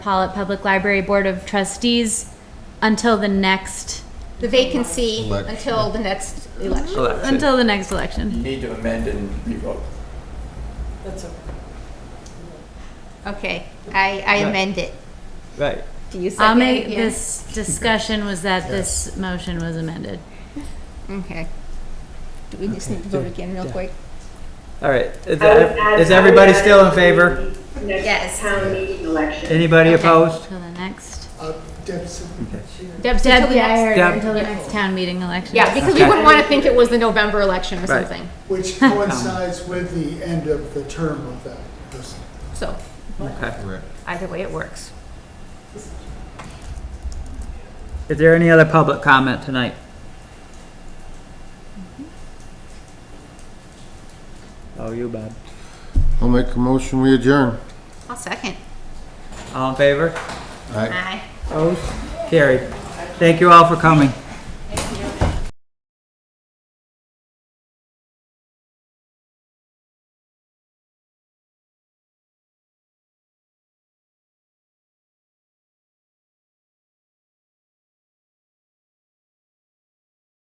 Pollitt Public Library Board of Trustees until the next, The vacancy Elect- until the next election. Elected. until the next election. You need to amend and revoke. Okay, I, I amend it. Right. Do you second? I'll make, Yeah. this discussion was that this motion was amended. Okay. Do we just need to vote again real quick? All right. Is, I would add- is I would everybody add still in the favor? Yes. Next town meeting election. Anybody Okay. opposed? Till the next, Deb, so till Deb, the next. Deb. until the next town meeting election. Yeah, because we Okay. wouldn't want to think it was the November election or Right. something, Which coincides with the end of the term of that person. so Okay. Right. either way it works. Is there any other public comment tonight? Oh, you, Bob. I'll make a motion, we adjourn. I'll second. All in favor? Aye. Aye. Opposed? Carried. Thank you all for coming.